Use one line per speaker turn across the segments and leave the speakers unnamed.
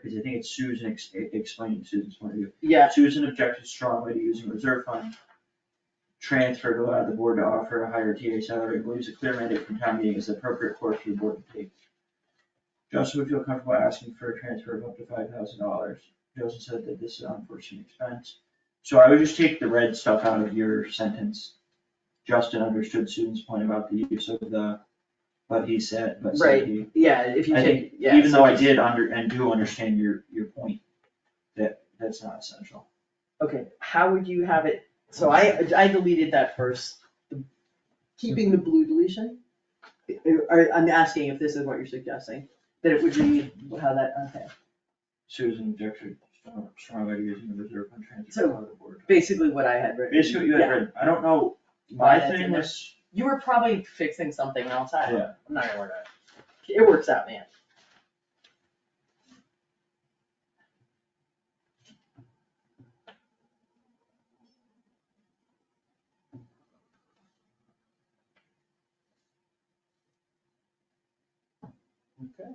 because I think it's Susan ex- e-, explaining Susan's point of view.
Yeah,
Susan objected strongly to using reserve fund transfer to allow the board to offer a higher TA salary, believes a clear mandate from town meeting is the appropriate course for the board to take. Justin would feel comfortable asking for a transfer of up to five thousand dollars. Justin said that this is an unforeseen expense. So I would just take the red stuff out of your sentence. Justin understood Susan's point about the use of the, but he said, but said
Right.
he.
yeah, if you
I
take, yeah.
Even
so
though I
just-
did under, and do understand your, your point, that, that's not essential.
Okay, how would you have it, so I, I deleted that first, the- keeping the blue deletion? Or, I'm asking if this is what you're suggesting, that it would read how that, okay.
Susan objected strong- strongly to using the reserve fund transfer
So-
out of the board.
Basically what I had written.
Basically, you had
Yeah.
written, I don't know,
Why
my
that's
thing
in there.
was,
You were probably fixing something else, I,
yeah,
I'm not gonna worry about it. It works out, man.
Okay.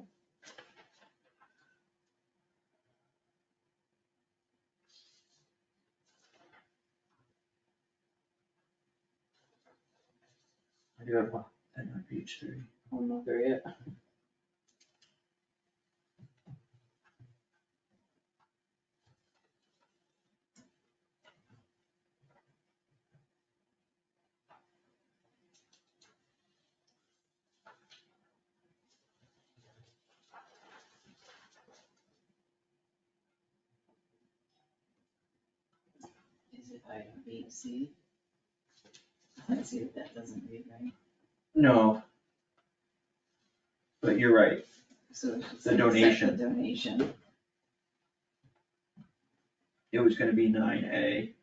I do have one, thing on page three.
I'm not there yet.
Is it item B, C? Let's see if that doesn't read right.
No. But you're right,
So it's just
The donation.
accept The donation.
it was gonna be nine A.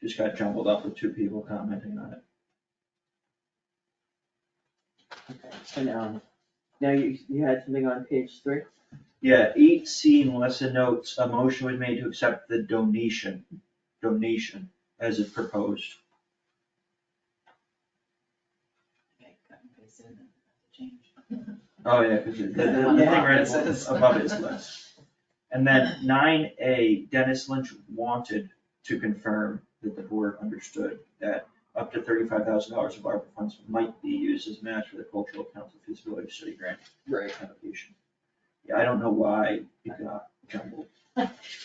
Just got jumbled up with two people commenting on it.
Okay, so now, now you, you had something on page three?
Yeah, eight C, Melissa notes, a motion was made to accept the donation, donation as it proposed.
Okay, cut and paste it, then change.
Oh, yeah, cause it- the, the
Yeah,
the thing
yeah,
right
it says.
above it is less. And then nine A, Dennis Lynch wanted to confirm that the board understood that up to thirty-five thousand dollars of ARPA funds might be used as match for the cultural council feasibility study grant
Right.
application. Yeah, I don't know why it got jumbled.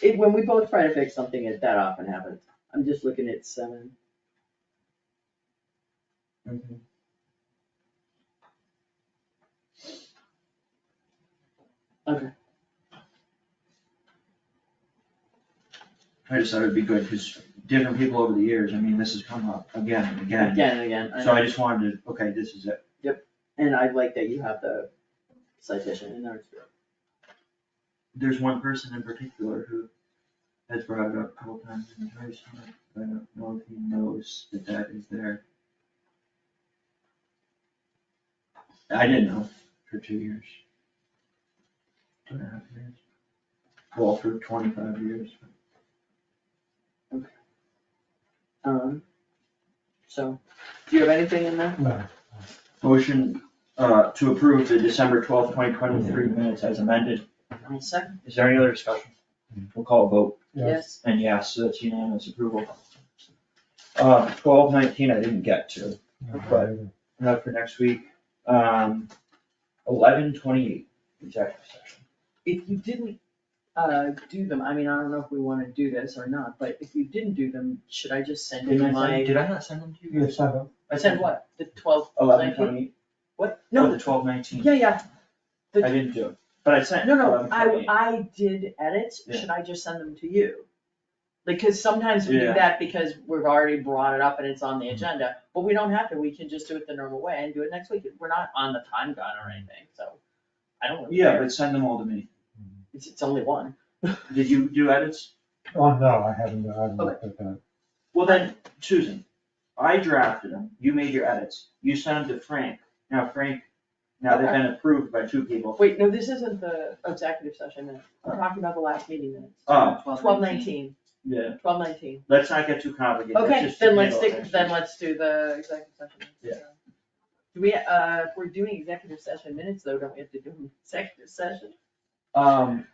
It, when we both try to fix something, it, that often happens. I'm just looking at seven. Okay.
I just thought it'd be good, cause different people over the years, I mean, this has come up again and again.
Again and again, I
So I
know.
just wanted to, okay, this is it.
and I like that you have the citation in there.
there's one person in particular who has brought it up a couple times in the past, but I don't know if he knows that that is there. I didn't know for two years. Two and a half years. Well, for twenty-five years.
Um, so, do you have anything in there?
Motion, uh, to approve the December twelfth, twenty twenty-three minutes as amended.
I'll second.
Is there any other discussion? We'll call a vote.
Yes.
And yes, so that's unanimous approval. Uh, twelve nineteen, I didn't get to, not for next week, um, eleven twenty-eight, executive session.
If you didn't, uh, do them, I mean, I don't know if we wanna do this or not, but if you didn't do them, should I just send in
Didn't I send,
my?
did I not send them to you?
Yes, I have.
I sent what, the twelve,
Eleven
nineteen?
twenty-eight,
What,
no,
no,
the twelve nineteen,
yeah, yeah,
I
the-
didn't do it, but I sent
no, no,
eleven
I,
twenty-eight.
I did edits,
Yeah.
should I just send them to you? Because sometimes we do
Yeah.
that because we've already brought it up and it's on the agenda, but we don't have to, we can just do it the normal way and do it next week, we're not on the time gun or anything, so. I don't really
Yeah,
care,
but send them all to me.
it's, it's only one.
Did you do edits?
Oh, no, I haven't, I haven't looked at that.
Well then, Susan, I drafted them, you made your edits, you sent them to Frank, now Frank, now they've been approved by two people.
Wait, no, this isn't the executive session minutes, I'm talking about the last meeting minutes.
Oh,
Twelve nineteen,
yeah,
twelve nineteen.
Let's not get too complicated. Let's
Okay,
just
then let's
handle it
stick,
next
then
week.
let's do the executive session. minutes.
Yeah.
Do we, uh, if we're doing executive session minutes though, don't we have to do them in executive session?
Um,